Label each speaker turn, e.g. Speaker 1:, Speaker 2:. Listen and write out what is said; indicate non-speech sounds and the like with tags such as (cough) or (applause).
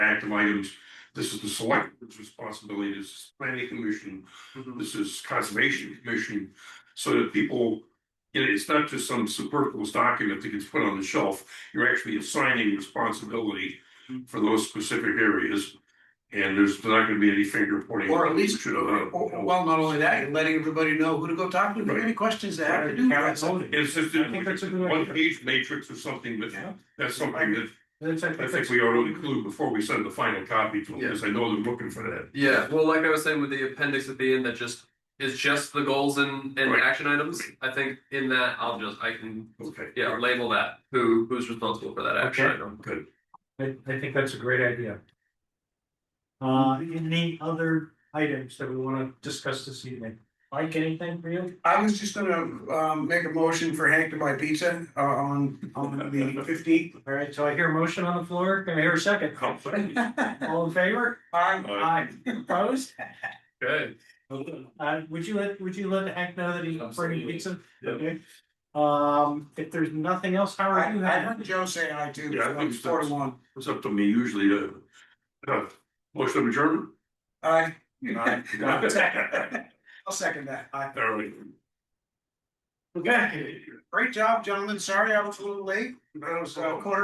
Speaker 1: active items. This is the selectmen's responsibility, this is planning commission,
Speaker 2: Mm-hmm.
Speaker 1: this is conservation commission. So that people, you know, it's not just some superfluous document that gets put on the shelf. You're actually assigning responsibility for those specific areas. And there's not gonna be any finger pointing. uh,
Speaker 2: Or at least,
Speaker 1: Should have-
Speaker 2: or- or- well, not only that, you're letting everybody know who to go talk to, if they have any questions they have to do.
Speaker 3: Right.
Speaker 2: that's all.
Speaker 1: It's just
Speaker 3: I think that's a good idea.
Speaker 1: one page matrix or something, but
Speaker 2: Yeah.
Speaker 1: that's something that
Speaker 3: That's, I
Speaker 1: I think we ought to include before we send the final copy to them, because I know they're looking for that.
Speaker 4: Yeah, well, like I was saying with the appendix at the end, that just is just the goals and, and
Speaker 1: Right.
Speaker 4: action items. I think in that, I'll just I can
Speaker 1: Okay.
Speaker 4: yeah label that who who's responsible for that action
Speaker 3: Okay.
Speaker 4: item.
Speaker 1: Good.
Speaker 3: I, I think that's a great idea. Uh, any other items that we wanna discuss this evening? Mike, anything for you?
Speaker 2: I was just gonna um make a motion for Hank to buy pizza uh on on the (laughs) fifteenth.
Speaker 3: All right, so I hear a motion on the floor. Can I hear a second? All in favor? Aye. Opposed?
Speaker 4: Good.
Speaker 3: Uh, would you let, would you let Hank know that he's bringing pizza?
Speaker 4: Yeah.
Speaker 3: Okay. Um, if there's nothing else,
Speaker 2: I
Speaker 3: Howard, you
Speaker 2: I
Speaker 3: have?
Speaker 2: heard Joe say aye too,
Speaker 1: Yeah, I
Speaker 2: so
Speaker 1: think
Speaker 2: I'm
Speaker 1: so.
Speaker 2: four to one.
Speaker 1: It's up to me usually to. uh, Motion of adjournment?
Speaker 2: Aye.
Speaker 1: Aye.
Speaker 2: I'll second that. Aye.
Speaker 1: All right.
Speaker 2: Okay, great job, gentlemen. Sorry I was a little late. I was uh, quarter